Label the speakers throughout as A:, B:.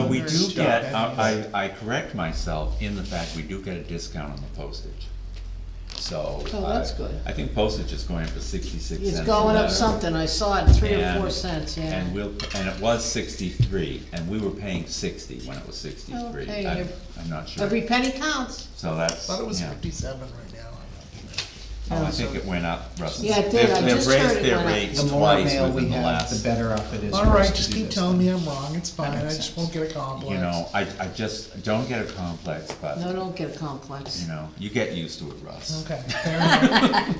A: we
B: Very
A: do
B: sharp.
A: get, I, I I correct myself in the fact we do get a discount on the postage. So.
B: Oh, that's
A: I-
B: good.
A: I think postage is going up to sixty-six cents.
B: It's
A: a
B: going up
A: letter.
B: something, I saw it, three or
A: And-
B: four cents, yeah.
A: And we'll, and it was sixty-three, and we were paying sixty when it was sixty-three.
B: Okay,
A: I'm,
B: ev-
A: I'm not sure.
B: Every penny counts.
A: So that's,
C: Thought it was
A: yeah.
C: fifty-seven right now.
A: Oh, I think it went up, Russell.
B: Yeah, it did. I
A: They've-
B: just
A: They've
B: heard
A: raised
B: it
A: their
B: went up.
A: rates
D: The more
A: twice
D: mail we
A: within the
D: have, the
A: last,
D: better off it is.
C: All
D: for us
C: right,
D: to
C: just
D: do
C: keep
D: this
C: telling
D: thing.
C: me I'm wrong, it's fine, I
D: makes
C: just
D: sense.
C: won't get a complex.
A: you know, I, I just, don't get a complex, but,
B: No, don't get a
A: you
B: complex.
A: know, you get used to it, Russ.
C: Okay, fair enough.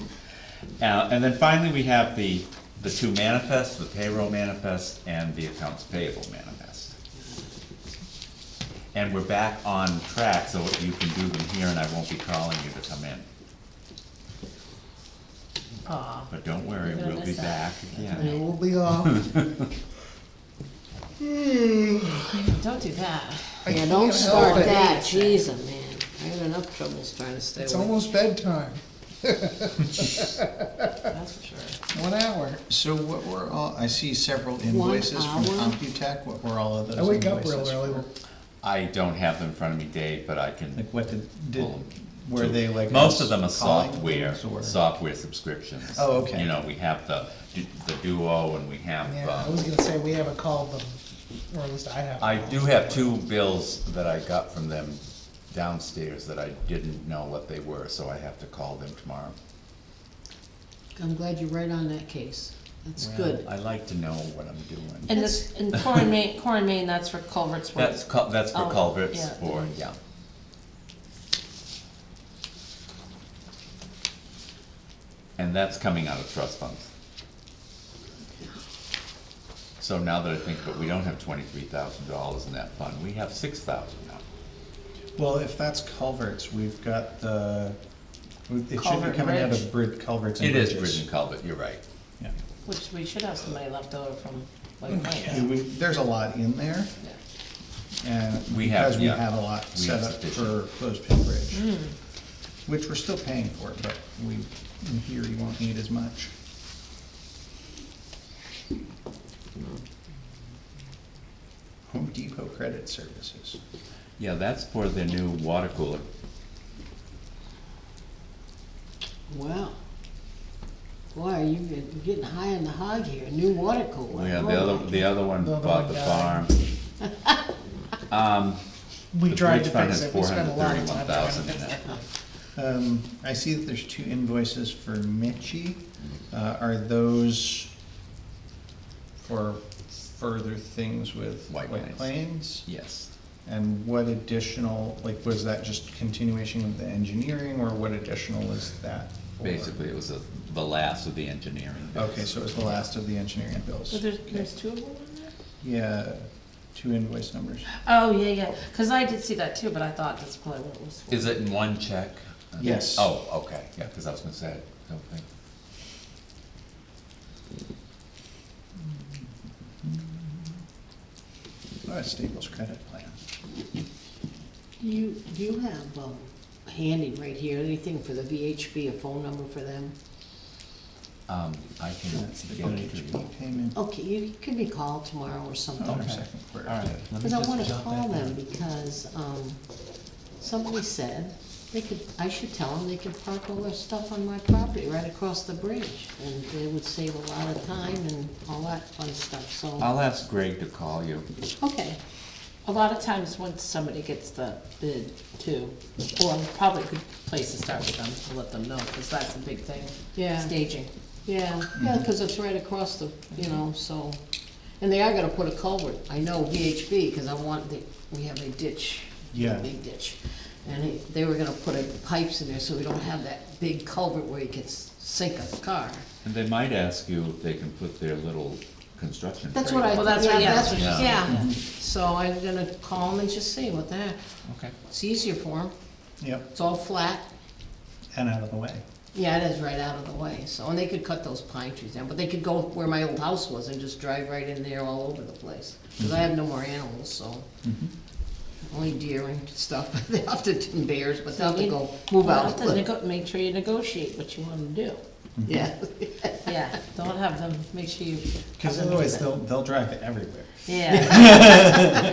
A: Uh, and then finally, we have the, the two manifests, the payroll manifest and the accounts payable manifest. And we're back on track, so you can do them here and I won't be calling you to come in.
B: Aw,
A: But don't worry,
B: You're gonna
A: we'll be
B: miss out.
A: back
C: It
A: again.
C: will be off. Hmm.
B: don't do that.
C: I
B: Yeah,
C: can't
B: don't
C: help
B: start
C: it.
B: that, jeez, oh, man. I have enough troubles trying to stay
C: It's
B: awake,
C: almost bedtime,
B: that's for sure.
C: one hour.
D: So what were all, I see several invoices from
B: hour?
D: Computech, what were all of those
C: I wake up
D: invoices
C: real early.
D: for?
A: I don't have them in front of me, Dave, but I can
D: Like what did,
A: Well,
D: did, were they like?
A: Most of them are
D: calling
A: software,
D: things or-
A: software subscriptions.
D: Oh, okay.
A: You know, we have the, du- the Duo and we have,
C: Yeah, I was
A: uh,
C: gonna say, we haven't called them, or at least I haven't.
A: I
C: called
A: do
C: them.
A: have two bills that I got from them downstairs that I didn't know what they were, so I have to call them tomorrow.
B: I'm glad you're right on that case, that's good.
A: I like to know what I'm doing.
E: And this, and Core and Main, Core and Main, that's for culverts work.
A: That's, cul- that's for
E: Oh,
A: culverts
E: yeah.
A: for, yeah. And that's coming out of trust funds. So now that I think, but we don't have twenty-three thousand dollars in that fund, we have six thousand now.
D: Well, if that's culverts, we've got the, it should be
E: Culvert
D: coming out
E: bridge.
D: of brid, culverts and
A: It is
D: bridges.
A: bridge and culvert, you're right.
D: Yeah.
E: Which we should have somebody left over from, like,
D: I
E: mine.
D: mean, we, there's a lot in there, and
A: We have-
D: because we
A: yeah.
D: have a lot
A: We have
D: set up for
A: sufficient.
D: closed pit bridge, which we're still paying for, but we, in theory, won't need as much. Home Depot Credit Services.
A: Yeah, that's for the new water cooler.
B: Wow. Boy, you've been getting high in the hog here, new water cooler.
A: Yeah, the other, the other one
C: The other
A: bought
C: one
A: the farm.
C: died. We
A: The
C: tried to
A: bridge fund
C: fix
A: has
C: it, we spent a lot of time trying to
A: 431,000 in
C: fix
A: it.
C: that.
D: Um, I see that there's two invoices for Mitchy. Uh, are those for further things with
A: White
D: White
A: Plains.
D: Plains?
A: Yes.
D: And what additional, like, was that just continuation of the engineering, or what additional is that for?
A: Basically, it was the- the last of the engineering. bids.
D: Okay, so it was the last of the engineering
E: So
D: bills.
E: there's, there's two of them in there?
D: Yeah, two invoice numbers.
E: Oh, yeah, yeah, cause I did see that too, but I thought that's probably what it was for.
A: Is it in one check?
D: Yes.
A: Oh, okay, yeah, because I was gonna say, I don't think.
D: Oh, it's Staples Credit Plan.
B: You, do you have, um, handy right here, anything for the VHB, a phone number for them?
A: Um, I can
D: That's the
A: get it to you.
D: WHP payment.
B: Okay, you can be called tomorrow or
D: Oh,
B: something.
D: our second quarter.
A: All right, let me
B: Cause I
A: just
B: wanna
A: jot
B: call
A: that down.
B: them because, um, somebody said they could, I should tell them they could park all their stuff on my property right across the bridge. And they would save a lot of time and all that fun stuff, so,
A: I'll ask Greg to call you.
B: okay.
E: A lot of times, once somebody gets the bid too, or probably a good place to start with them, to let them know, cause that's a big thing.
B: Yeah.
E: Staging.
B: Yeah, yeah,
E: Mm-hmm.
B: because it's right across the, you know, so, and they are gonna put a culvert, I know VHB, because I want the, we have a ditch. a
D: Yeah.
B: Big ditch, and they, they were gonna put a pipes in there, so we don't have that big culvert where you can s- sink a car.
A: And they might ask you if they can put their little construction.
B: That's what I,
E: Well,
B: yeah,
E: that's what- yeah,
B: that's,
E: that's
A: what she
B: yeah, so I'm gonna call them and just see what the heck,
A: trailer. Okay.
B: it's easier for them,
D: Yep,
B: it's all flat,
D: and out of the way.
B: yeah, it is right out of the way, so, and they could cut those pine trees down, but they could go where my old house was and just drive right in there all over the place. Cause I have no more animals, so, only deer and stuff, they have to, and bears, but they'll have to go move
E: Well,
B: out.
E: to nego- Make sure you negotiate what you wanna do,
B: Yeah,
E: yeah, don't have them, make sure you. have
D: Because
E: them do
D: otherwise,
E: that.
D: they'll, they'll drive it everywhere.
E: Yeah.